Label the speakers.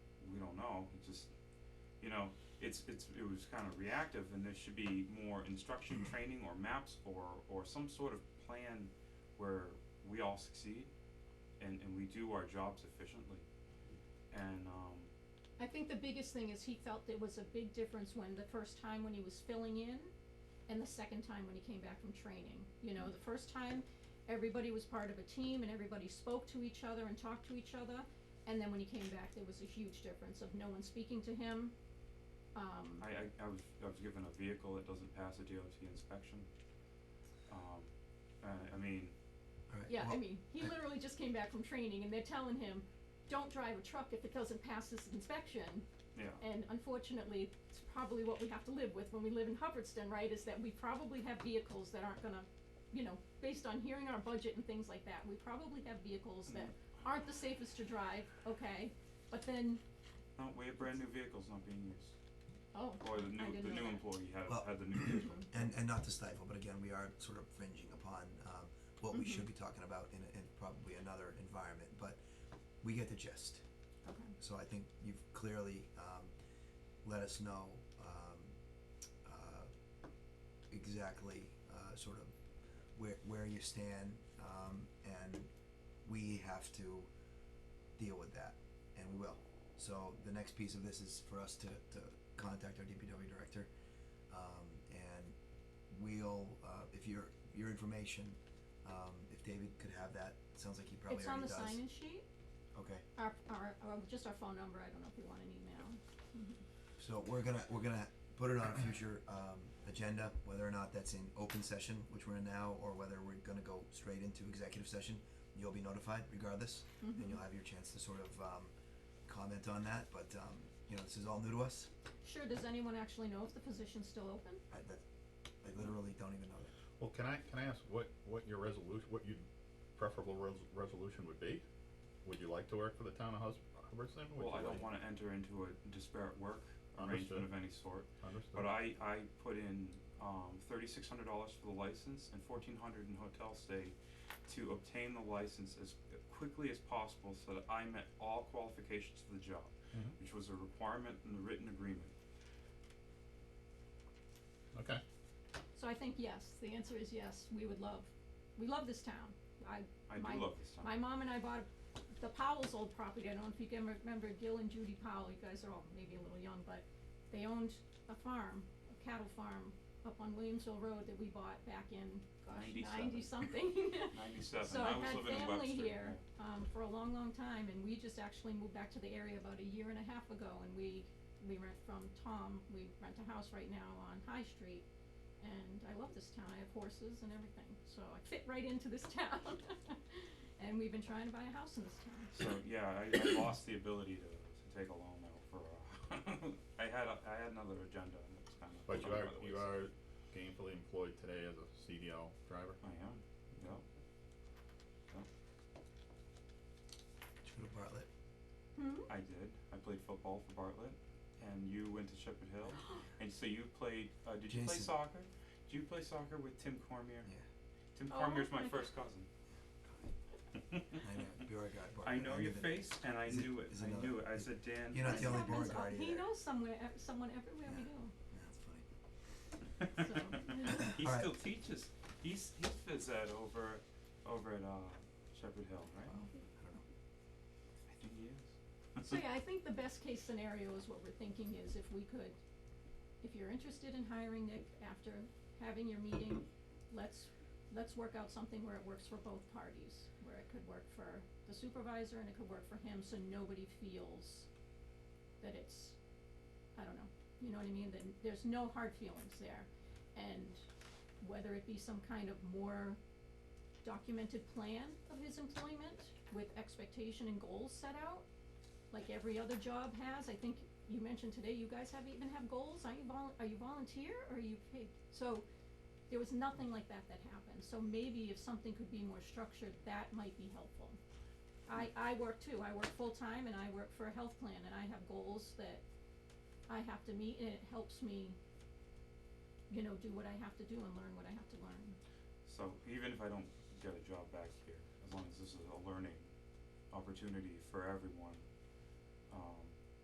Speaker 1: know, it just, you know, it's, it's, it was kind of reactive and there should be more instruction, training, or maps, or, or some sort of plan where we all succeed and, and we do our jobs efficiently. And, um,
Speaker 2: I think the biggest thing is he felt there was a big difference when the first time when he was filling in and the second time when he came back from training. You know, the first time, everybody was part of a team and everybody spoke to each other and talked to each other. And then when he came back, there was a huge difference of no one speaking to him. Um,
Speaker 1: I, I, I was, I was given a vehicle that doesn't pass a DOT inspection. Um, I, I mean,
Speaker 3: Alright,
Speaker 2: yeah, I
Speaker 3: well,
Speaker 2: mean, he literally just came back from training and they're telling him, don't drive a truck if it doesn't pass this inspection.
Speaker 1: yeah,
Speaker 2: And unfortunately, it's probably what we have to live with when we live in Hubbardston, right, is that we probably have vehicles that aren't gonna, you know, based on hearing our budget and things like that, we probably have vehicles that
Speaker 1: Mm-hmm.
Speaker 2: aren't the safest to drive, okay, but then,
Speaker 1: no, we have brand new vehicles not being used.
Speaker 2: oh,
Speaker 1: Or the new,
Speaker 2: didn't
Speaker 1: the
Speaker 2: know
Speaker 1: new
Speaker 2: that.
Speaker 1: employee had,
Speaker 3: Well-
Speaker 1: had the new vehicle.
Speaker 3: And, and not to stifle, but again, we are sort of fringing upon, um, what we should be talking about in, in probably another environment, but we get the gist.
Speaker 2: okay,
Speaker 3: So I think you've clearly, um, let us know, um, uh, exactly, uh, sort of where, where you stand, um, and we have to deal with that, and we will. So the next piece of this is for us to, to contact our DPW director, um, and we'll, uh, if your, your information, um, if David could have that, sounds like he probably
Speaker 2: it's on
Speaker 3: already
Speaker 2: the
Speaker 3: does.
Speaker 2: sign-in sheet,
Speaker 3: Okay.
Speaker 2: our, our, or just our phone number, I don't know if we want an email.
Speaker 3: So we're gonna, we're gonna put it on a future, um, agenda, whether or not that's in open session, which we're in now, or whether we're gonna go straight into executive session, you'll be notified regardless, and
Speaker 2: Mm-hmm.
Speaker 3: you'll have your chance to sort of, um, comment on that, but, um, you know, this is all new to us,
Speaker 2: Sure, does anyone actually know if the position's still open?
Speaker 3: I, that, I literally don't even know that.
Speaker 4: Well, can I, can I ask what, what your resolution, what your preferable res- resolution would be? Would you like to work for the town of Hus- Hubbardston? Would
Speaker 1: Well,
Speaker 4: you
Speaker 1: I don't
Speaker 4: like-
Speaker 1: wanna enter into a disparate work arrangement of
Speaker 4: Understood.
Speaker 1: any sort,
Speaker 4: Understood.
Speaker 1: but I, I put in, um, thirty-six hundred dollars for the license and fourteen hundred in hotel stay to obtain the license as quickly as possible so that I met all qualifications for the job,
Speaker 4: Mhm.
Speaker 1: which was a requirement in the written agreement.
Speaker 4: Okay,
Speaker 2: So I think yes, the answer is yes, we would love, we love this town, I,
Speaker 1: I
Speaker 2: My-
Speaker 1: do love this town.
Speaker 2: My mom and I bought the Powell's old property, I don't know if you can remember Gil and Judy Powell, you guys are all maybe a little young, but they owned a farm, a cattle farm up on Williamsville Road that we bought back in, gosh,
Speaker 1: 97.
Speaker 2: ninety something.
Speaker 1: Ninety-seven,
Speaker 2: So
Speaker 1: I
Speaker 2: I
Speaker 1: was living in
Speaker 2: had
Speaker 1: Webster.
Speaker 2: family here,
Speaker 1: yeah.
Speaker 2: um, for a long, long time, and we just actually moved back to the area about a year and a half ago, and we, we rent from Tom, we rent a house right now on High Street, and I love this town, I have horses and everything, so I fit right into this town. And we've been trying to buy a house in this town,
Speaker 1: So, yeah, I, I lost the ability to, to take a loan though for, uh, I had, a- I had another agenda and it's kind of.
Speaker 4: but you
Speaker 1: gone
Speaker 4: are,
Speaker 1: by the
Speaker 4: you
Speaker 1: wayside.
Speaker 4: are gainfully employed today as a CDL driver?
Speaker 1: I am, yeah.
Speaker 3: Should we go to Bartlett,
Speaker 2: hmm?
Speaker 1: I did. I played football for Bartlett, and you went to Shepherd Hill, and so you played. Uh, did you play
Speaker 3: Jason.
Speaker 1: soccer? Did you play soccer with Tim Cormier?
Speaker 3: Yeah.
Speaker 1: Tim
Speaker 2: Oh
Speaker 1: Cormier's my
Speaker 2: my
Speaker 1: first cousin.
Speaker 3: I know, you're a guy, Bartlett.
Speaker 1: I know your
Speaker 3: knew that.
Speaker 1: face, and I
Speaker 3: Is it-
Speaker 1: knew it.
Speaker 3: is
Speaker 1: I
Speaker 3: another-
Speaker 1: knew it. I said, Dan.
Speaker 3: You're not
Speaker 2: This
Speaker 3: the only
Speaker 2: happens
Speaker 3: board
Speaker 2: all-
Speaker 3: guard
Speaker 2: He
Speaker 3: either.
Speaker 2: knows somewhere, ev- someone everywhere we
Speaker 3: Yeah.
Speaker 2: go,
Speaker 3: Yeah, that's funny.
Speaker 1: he
Speaker 3: All right.
Speaker 1: still teaches. He's he phys ed over, over at uh, Shepherd Hill, right?
Speaker 3: Wow, I don't know.
Speaker 1: I think he is.
Speaker 2: So yeah, I think the best case scenario is what we're thinking is if we could, if you're interested in hiring Nick after having your meeting, let's, let's work out something where it works for both parties, where it could work for the supervisor and it could work for him, so nobody feels that it's, I don't know, you know what I mean, then there's no hard feelings there. And whether it be some kind of more documented plan of his employment with expectation and goals set out, like every other job has, I think you mentioned today, you guys have even have goals, aren't you vol- are you volunteer or are you paid? So there was nothing like that that happened, so maybe if something could be more structured, that might be helpful. I I work too, I work full-time and I work for a health plan and I have goals that I have to meet and it helps me, you know, do what I have to do and learn what I have to learn.
Speaker 1: So even if I don't get a job back here, as long as this is a learning opportunity for everyone, um,